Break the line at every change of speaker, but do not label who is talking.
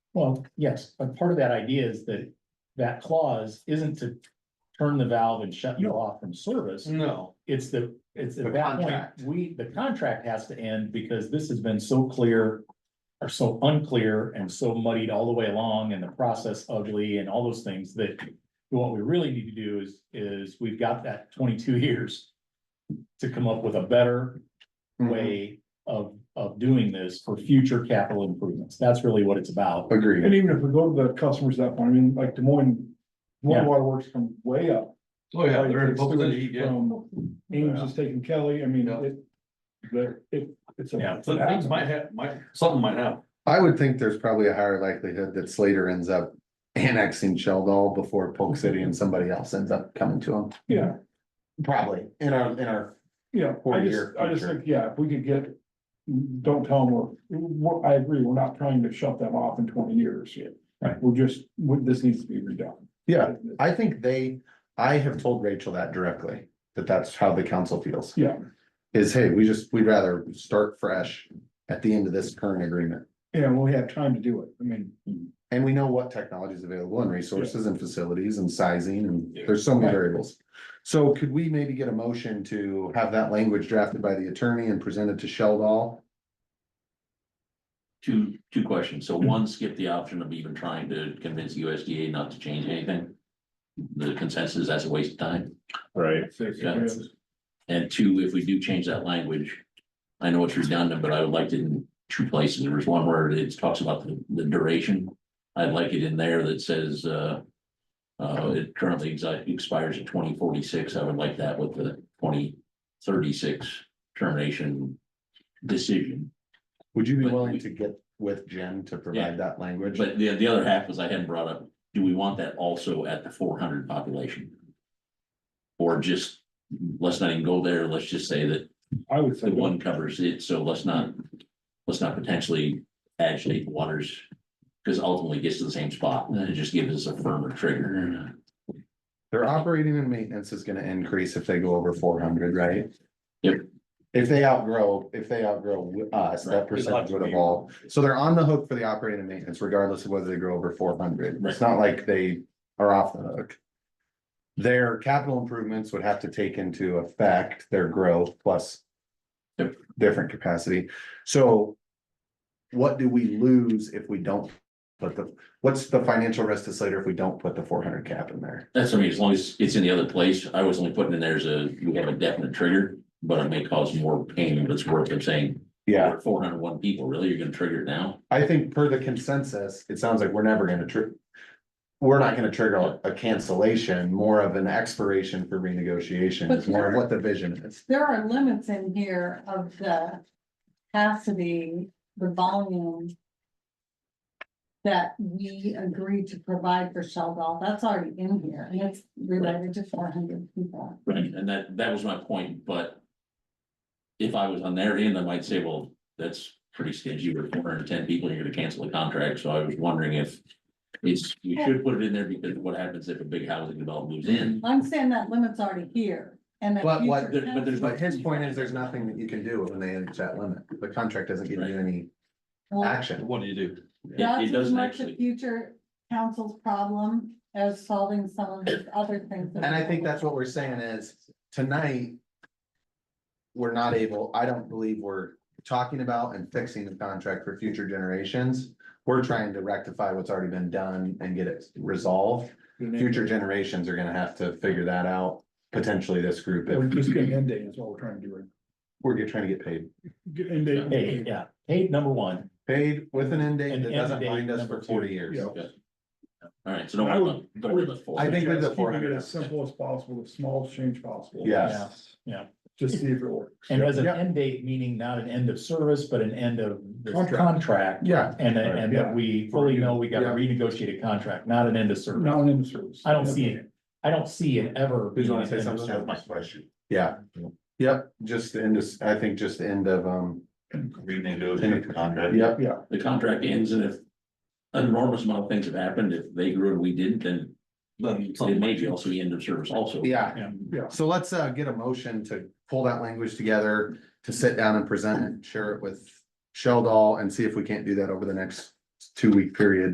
Well, yes, but part of that idea is that that clause isn't to turn the valve and shut you off from service.
No.
It's the, it's
Mm. The
at that point,
contract.
we, the contract has to end because this has been so clear. Or so unclear and so muddied all the way along and the process ugly and all those things that. What we really need to do is, is we've got that twenty-two years. To come up with a better
Mm-hmm.
way of, of doing this for future capital improvements. That's really what it's about.
Agreed.
And even if we go to the customers at that point, I mean, like Des Moines, Des
Yeah.
Moines Water Works come way up.
Oh, yeah, they're in
Like, it's
publicity, yeah.
from Ames is taking Kelly, I mean,
Yeah.
it, but it, it's a.
Yeah.
So things might have, might, something might happen.
I would think there's probably a higher likelihood that Slater ends up annexing Sheldon before Polk
Mm-hmm.
City and somebody else ends up coming to him.
Yeah,
Probably, in our, in our.
yeah,
For
I
your
just, I just
future.
think, yeah, if we could get, don't tell them, we're, we're- I agree, we're not trying to shut them off in twenty years.
Right.
We're just, we- this needs to be redone.
Yeah, I think they, I have told Rachel that directly, that that's how the council feels.
Yeah.
Is, hey, we just, we'd rather start fresh at the end of this current agreement.
Yeah, we have time to do it, I mean,
And we know what technology is available and resources and facilities and sizing and
Yeah.
there's so many
Right.
variables. So could we maybe get a motion to have that language drafted by the attorney and presented to Sheldon?
Two, two questions. So one, skip the option of even trying to convince USDA not to change anything. The consensus, that's a waste of time.
Right,
it's, it's-
Yeah. And two, if we do change that language, I know it's redundant, but I would like it in two places. There was one where it talks about the, the duration. I'd like it in there that says, uh, uh, it currently exi- expires in twenty forty-six. I would like that with the twenty thirty-six termination decision.
Would you be
But
willing
we-
to get with Jen to provide that language?
But the, the other half was I hadn't brought up, do we want that also at the four hundred population? Or just, let's not even go there, let's just say that
I would say.
the one covers it, so let's not, let's not potentially agitate the waters. Because ultimately it gets to the same spot, and then it just gives us a firmer trigger.
Their operating and maintenance is gonna increase if they go over four hundred, right?
Yep.
If they outgrow, if they outgrow us, that
Right.
percentage would evolve. So they're on the hook for the operating and maintenance regardless of whether they grow over four hundred. It's not like they are off the hook. Their capital improvements would have to take into effect their growth plus
Yep.
different capacity. So what do we lose if we don't put the, what's the financial risk to Slater if we don't put the four hundred cap in there?
That's, I mean, as long as it's in the other place, I was only putting in there's a, we have a definite trigger, but it may cause more pain, but it's worth it saying.
Yeah,
Four hundred one people, really, you're gonna trigger it now?
I think per the consensus, it sounds like we're never gonna tr- we're not gonna trigger a cancellation, more of an expiration for renegotiation, is more of what the vision is.
There are limits in here of the capacity, the volume. That we agreed to provide for Sheldon, that's already in here, and it's related to four hundred people.
Right, and that, that was my point, but. If I was on their end, I might say, well, that's pretty stingy, we're four hundred and ten people, you're gonna cancel the contract, so I was wondering if. It's, you should put it in there because what happens if a big housing development moves in?
I'm saying that limit's already here, and that.
But what-
future
but there's
council-
But his point is, there's nothing that you can do when they enter that limit. The contract doesn't give you any
Well,
action.
What do you do?
It,
That's
it
as
doesn't
much a
actually,
future council's problem as solving some of the other things. that-
And I think that's what we're saying is, tonight. We're not able, I don't believe we're talking about and fixing the contract for future generations. We're trying to rectify what's already been done and get it resolved. Future generations are gonna have to figure that out, potentially this group,
We're
if
just getting end date is what we're trying to do, right?
we're get- trying to get paid.
Get end date.
Hey, yeah, hey, number one,
Paid with an end date
And
that
end
doesn't
date
bind us
number
for
two.
forty years.
Yeah.
alright, so don't
I
worry
would-
about, don't worry about four.
I think with the
Just keeping it
400.
As simple as possible, as small as change possible.
Yes.
Yeah, yeah.
Just see if it works.
and as an
Yeah.
end date, meaning not an end of service, but an end of this
Contract.
contract.
Yeah.
And, that- and that
Right.
we fully know we gotta
Yeah.
renegotiate a contract, not an end of service.
Not in the service.
I don't see it. I don't see it ever.
Who's
being
gonna
an
say
end of
something?
service.
Yeah, yep, just the end of, I think just the end of, um,
renegotiate contract.
yep,
The contract ends and if. An enormous amount of things have happened, if they grew and we didn't, then it may be also the end of service also.
yeah.
Yeah.
So let's uh get a motion to pull that language together, to sit down and present it, share it with Sheldon and see if we can't do that over the next two week period.